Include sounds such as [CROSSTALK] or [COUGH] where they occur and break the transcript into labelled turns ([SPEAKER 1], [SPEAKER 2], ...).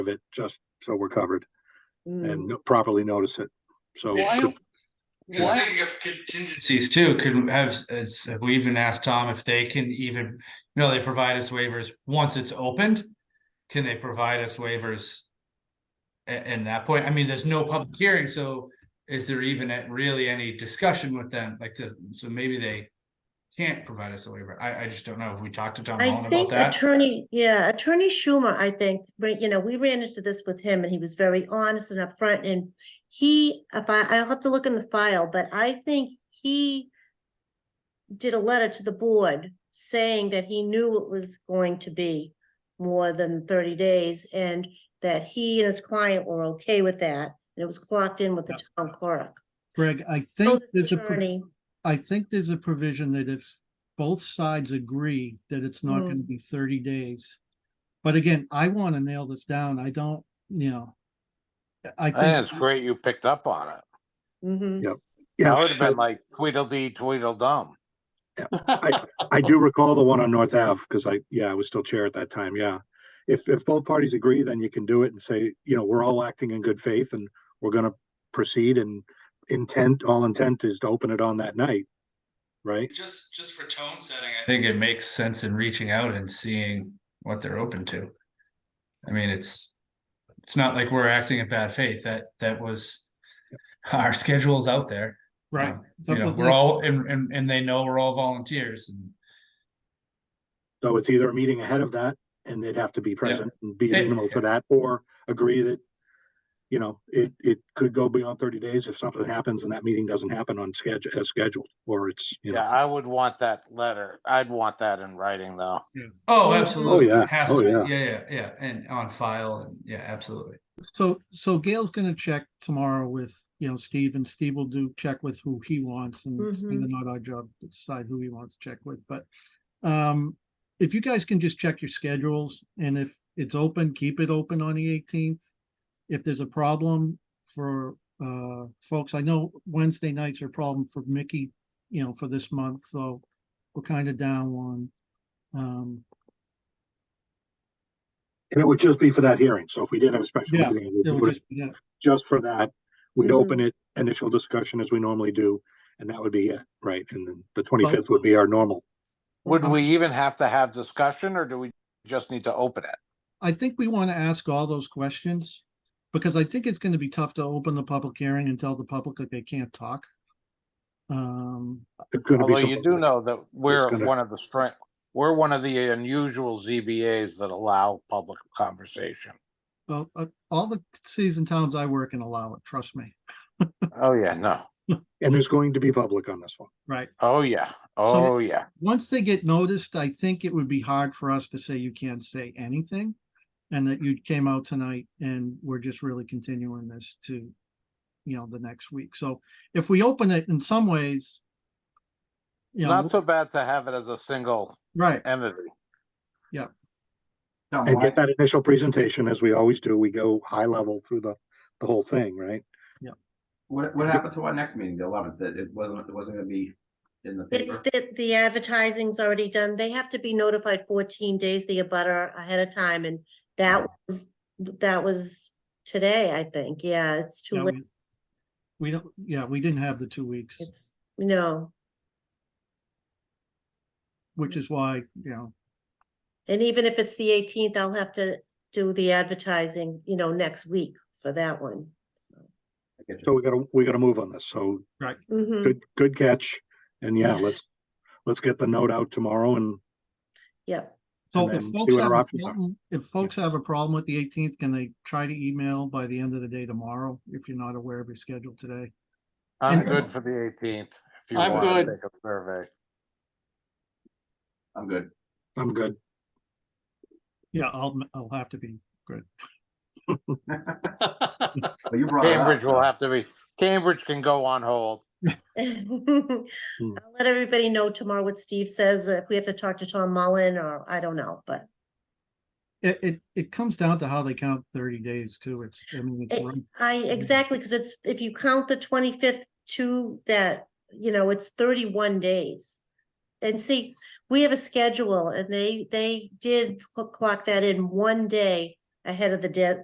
[SPEAKER 1] of it, just so we're covered
[SPEAKER 2] Mm.
[SPEAKER 1] and
[SPEAKER 3] Hmm.
[SPEAKER 1] no- properly notice it. So,
[SPEAKER 2] Why-
[SPEAKER 1] could-
[SPEAKER 3] Just
[SPEAKER 2] why-
[SPEAKER 3] thinking of contingencies too, could have, as have we even asked Tom if they can even, you know, they provide us waivers once it's opened. Can they provide us waivers? a- in that point, I mean, there's no public hearing, so is there even a- really any discussion with them, like to, so maybe they. Can't provide us a waiver, I I just don't know, if we talked to Tom Holland
[SPEAKER 2] I
[SPEAKER 3] about
[SPEAKER 2] think
[SPEAKER 3] that?
[SPEAKER 2] attorney, yeah, attorney Schumer, I think, right, you know, we ran into this with him and he was very honest and upfront and he, if I, I'll have to look in the file, but I think he did a letter to the board saying that he knew it was going to be more than thirty days and that he and his client were okay with that. And it was clocked in with the town clerk.
[SPEAKER 4] Greg, I
[SPEAKER 2] Oh,
[SPEAKER 4] think
[SPEAKER 2] this
[SPEAKER 4] there's a, pro-
[SPEAKER 2] attorney,
[SPEAKER 4] I think there's a provision that if both sides agree that it's not gonna
[SPEAKER 2] Mm.
[SPEAKER 4] be thirty days. But again, I wanna nail this down. I don't, you know. I
[SPEAKER 5] I think it's
[SPEAKER 4] think,
[SPEAKER 5] great you picked up on it.
[SPEAKER 2] mhm.
[SPEAKER 1] yeah,
[SPEAKER 5] I would have been
[SPEAKER 1] I-
[SPEAKER 5] like Tweedledee Tweedledum.
[SPEAKER 1] I do recall the one on North Ave, because I, yeah, I was still chair at that time, yeah. If, if both parties agree, then you can do it and say, you know, we're all acting in good faith and we're gonna proceed and intent, all intent is to open it on that night, right?
[SPEAKER 3] Just just for tone setting. I think it makes sense in reaching out and seeing what they're open to. I mean, it's, it's not like we're acting in bad faith, that that was. Our schedule's out there.
[SPEAKER 4] right,
[SPEAKER 3] Um,
[SPEAKER 4] but
[SPEAKER 3] You know,
[SPEAKER 4] with
[SPEAKER 3] we're
[SPEAKER 4] next-
[SPEAKER 3] all, and and and they know we're all volunteers and.
[SPEAKER 1] So it's either a meeting ahead of that and they'd have to be present and be
[SPEAKER 3] Yeah.
[SPEAKER 1] amenable to that, or agree that, you know, it, it could go beyond thirty days if something happens and that meeting doesn't happen on schedule, as scheduled, or it's, you
[SPEAKER 5] Yeah,
[SPEAKER 1] know.
[SPEAKER 5] I would want that letter. I'd want that in writing though.
[SPEAKER 3] Oh, absolutely.
[SPEAKER 1] yeah.
[SPEAKER 3] Has
[SPEAKER 1] Oh,
[SPEAKER 3] to,
[SPEAKER 1] yeah.
[SPEAKER 3] yeah, yeah, yeah, and on file and yeah, absolutely.
[SPEAKER 4] so, so Gail's gonna check tomorrow with, you know, Steve and Steve will do check with who he wants and it's
[SPEAKER 2] Mhm.
[SPEAKER 4] kinda not our job to decide who he wants to check with, but. Um, if you guys can just check your schedules and if it's open, keep it open on the eighteenth. If there's a problem for uh folks, I know Wednesday nights are a problem for Mickey, you know, for this month, so we're kind of down one. Um,
[SPEAKER 1] And it would just be for that hearing, so if we did have a special
[SPEAKER 4] Yeah, Mm-hmm.
[SPEAKER 1] meeting,
[SPEAKER 4] it
[SPEAKER 1] it
[SPEAKER 4] would
[SPEAKER 1] would
[SPEAKER 4] just be that.
[SPEAKER 1] just for that, we'd
[SPEAKER 2] Mhm.
[SPEAKER 1] open it, initial discussion as we normally do, and that would be it, right? And then the twenty-fifth would be our normal.
[SPEAKER 5] Would
[SPEAKER 4] Um,
[SPEAKER 5] we even have to have discussion or do we just need to open it?
[SPEAKER 4] I think we want to ask all those questions because I think it's going to be tough to open the public hearing and tell the public that they can't talk. Um,
[SPEAKER 1] It's gonna be
[SPEAKER 5] Although you
[SPEAKER 1] something
[SPEAKER 5] do
[SPEAKER 1] like-
[SPEAKER 5] know that we're
[SPEAKER 1] gonna-
[SPEAKER 5] one of the strength, we're one of the unusual ZBAs that allow public conversation.
[SPEAKER 4] well, uh, all the cities and towns I work in allow it, trust me,
[SPEAKER 5] Oh, yeah, no.
[SPEAKER 1] And there's going to be public on this one.
[SPEAKER 4] right?
[SPEAKER 5] Oh, yeah. Oh, yeah.
[SPEAKER 4] Once they get noticed, I think it would be hard for us to say you can't say anything and that you came out tonight and we're just really continuing this to, you know, the next week. So if we open it in some ways, you know,
[SPEAKER 5] Not so bad to have it as a single
[SPEAKER 4] right,
[SPEAKER 5] entity.
[SPEAKER 3] No,
[SPEAKER 1] And get that initial presentation, as we always do, we go high level through the, the whole thing, right?
[SPEAKER 6] What, what happened to our next meeting, the eleventh, that it wasn't, it wasn't gonna be in the
[SPEAKER 2] It's
[SPEAKER 6] paper?
[SPEAKER 2] the, the advertising's already done. They have to be notified fourteen days the abutter ahead of time and that was, that was today, I think. Yeah, it's
[SPEAKER 4] Yeah,
[SPEAKER 2] too late.
[SPEAKER 4] we- We don't, yeah, we didn't have the two weeks,
[SPEAKER 2] It's, no.
[SPEAKER 4] which is why, you know,
[SPEAKER 2] And even if it's the eighteenth, I'll have to do the advertising, you know, next week for that one.
[SPEAKER 6] I get you.
[SPEAKER 1] So we gotta, we gotta move on this, so
[SPEAKER 4] Mm.
[SPEAKER 2] Mhm.
[SPEAKER 1] good, good catch, and yeah, let's, let's get the note out tomorrow and
[SPEAKER 2] Yep.
[SPEAKER 4] so
[SPEAKER 1] And
[SPEAKER 4] if
[SPEAKER 1] then see
[SPEAKER 4] folks
[SPEAKER 1] what
[SPEAKER 4] have
[SPEAKER 1] our
[SPEAKER 4] a
[SPEAKER 1] options are.
[SPEAKER 4] problem, if folks have a problem with the eighteenth, can they try to email by the end of the day tomorrow? If you're not aware of your schedule today,
[SPEAKER 5] I'm
[SPEAKER 4] And-
[SPEAKER 5] good for the eighteenth. If you
[SPEAKER 7] I'm
[SPEAKER 5] want to
[SPEAKER 7] good.
[SPEAKER 5] take a survey.
[SPEAKER 6] I'm good.
[SPEAKER 1] I'm good.
[SPEAKER 4] yeah, I'll, I'll have to be,
[SPEAKER 6] But you brought it up,
[SPEAKER 5] Cambridge
[SPEAKER 6] so-
[SPEAKER 5] will have to be, Cambridge can go on hold.
[SPEAKER 2] [LAUGHS] I'll let everybody know tomorrow what Steve says, if we have to talk to Tom Mullen or I don't know, but
[SPEAKER 4] it, it, it comes down to how they count thirty days too. It's, I mean, it's,
[SPEAKER 2] It-
[SPEAKER 4] run-
[SPEAKER 2] I, exactly, because it's, if you count the twenty-fifth to that, you know, it's thirty-one days. And see, we have a schedule and they, they did cl- clock that in one day ahead of the dead,